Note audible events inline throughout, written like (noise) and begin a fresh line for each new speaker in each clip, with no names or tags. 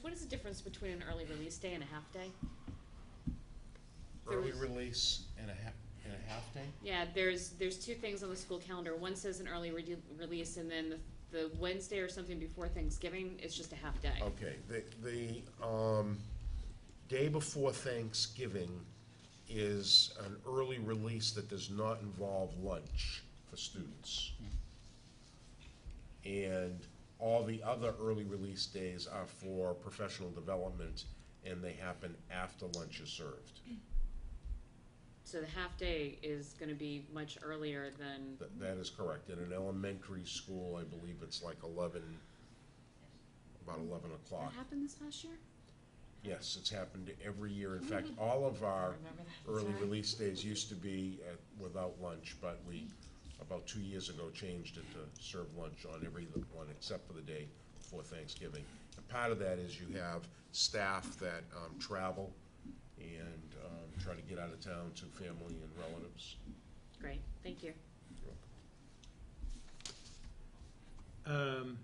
what is the difference between an early release day and a half day? There
Early
was-
release and a half, and a half day?
Yeah, there's, there's two things on the school calendar. One says an early re- release, and then the, the Wednesday or something before Thanksgiving is just a half day.
Okay, the, the, um, day before Thanksgiving is an early release that does not involve lunch for students. And all the other early release days are for professional development, and they happen after lunch is served.
So the half day is gonna be much earlier than,
That, that is correct. In an elementary school, I believe it's like eleven, about eleven
that
o'clock.
happened this past year?
Yes, it's happened every year. In fact, all of our
Remember that?
early
Sorry.
release days used to be at, without lunch, but we, about two years ago, changed it to serve lunch on every one except for the day before Thanksgiving. And part of that is you have staff that, um, travel and, um, try to get out of town to family and relatives.
Great, thank you.
Um,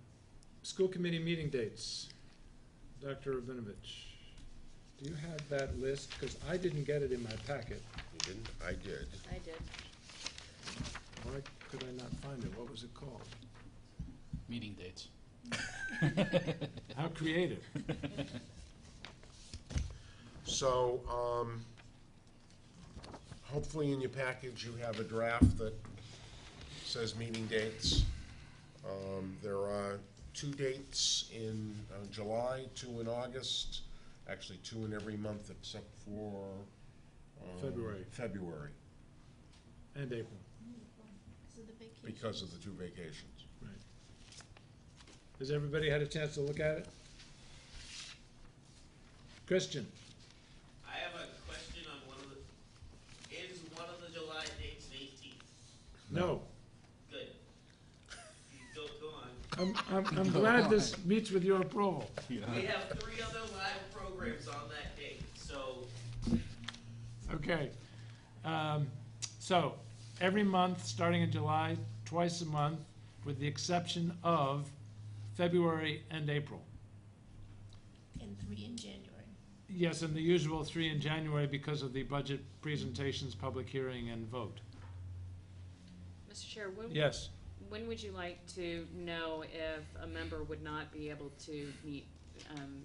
school committee meeting dates. Dr. Rabinovich, do you have that list? Because I didn't get it in my packet.
You didn't? I did.
I did.
Why could I not find it? What was it called?
Meeting dates.
How creative.
So, um, hopefully in your package, you have a draft that says meeting dates. Um, there are two dates in uh, July, two in August, actually two in every month except for, um,
February.
February,
And April,
Because of the vacation.
because of the two vacations.
right. Has everybody had a chance to look at it? Christian,
I have a question on one of the, is one of the July dates the eighteenth?
no.
Good. Go, go on.
I'm, I'm, I'm glad this meets with your approval.
We have three other live programs on that date, so
Okay. Um, So, every month, starting in July, twice a month, with the exception of February and April.
And three in January.
Yes, and the usual three in January because of the budget presentations, public hearing, and vote.
Mr. Chair, when,
Yes,
When would you like to know if a member would not be able to meet, um,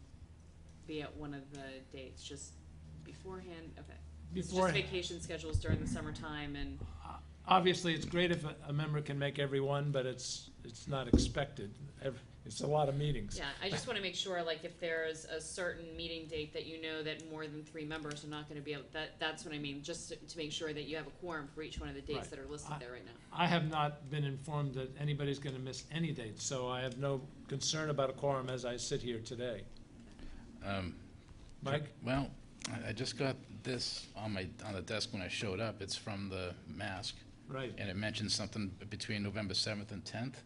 be at one of the dates, just beforehand, okay? It's
before,
Just vacation schedules during the summertime and,
obviously, it's great if a- a member can make every one, but it's, it's not expected. Ev- It's a lot of meetings.
yeah, I just wanna make sure, like, if there's a certain meeting date that you know that more than three members are not gonna be able, that, that's what I mean, just to- to make sure that you have a quorum for each one of the dates
Right.
that are listed
I-
there right now.
I have not been informed that anybody's going to miss any date, so I have no concern about a quorum as I sit here today.
Um,
Mike?
Well, I- I just got this on my, on the desk when I showed up. It's from the mask,
Right.
and it mentions something between November 7th and 10th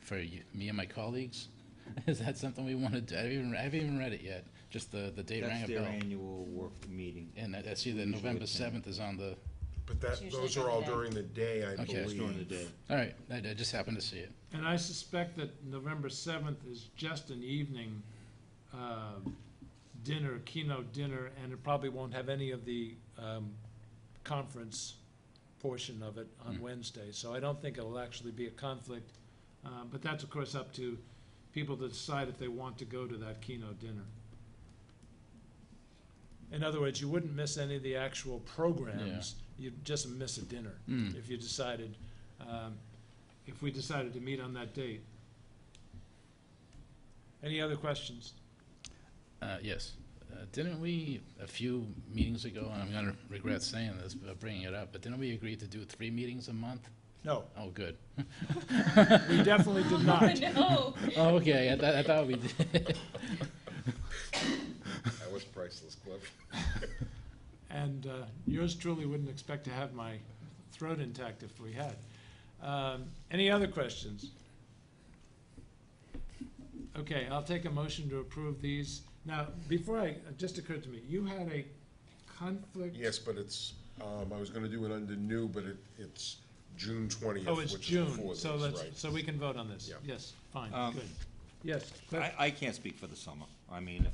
for you- me and my colleagues. (laughs) Is that something we want to do? I haven't even, I haven't even read it yet, just the, the date rang a
That's their
bell.
annual work meeting.
And I I see that
Usually
November
it's in-
7th is on the,
But
It's
that,
usually
those are
during
all
the day.
during the day, I
Okay. It's
believe.
During the day.
all right, I I just happened to see it.
And I suspect that November seventh is just an evening um, dinner, keynote dinner, and it probably won't have any of the um, conference portion of it on
Hmm.
Wednesday. So I don't think it'll actually be a conflict. Uh, But that's, of course, up to people to decide if they want to go to that keynote dinner. In other words, you wouldn't miss any of the actual programs. You'd just miss a dinner
Hmm.
if you decided, um, if we decided to meet on that date. Any other questions?
Uh, Yes. Uh, Didn't we, a few meetings ago, and I'm going to regret saying this, but bringing it up, but didn't we agree to do three meetings a month?
No,
Oh, good.
we definitely did not.
No.
Oh, okay, I thought, I thought we did.
(laughs) That was priceless, Cliff.
And uh, yours truly wouldn't expect to have my throat intact if we had. Um, Any other questions? Okay, I'll take a motion to approve these. Now, before I, it just occurred to me, you had a conflict?
Yes, but it's, um, I was gonna do it under new, but it, it's June twentieth,
Oh, it's
which is before this, right?
June, so let's, so we can vote on this.
Yeah.
Yes, fine,
Um,
good. Yes, Cliff?
I, I can't speak for the summer. I mean, if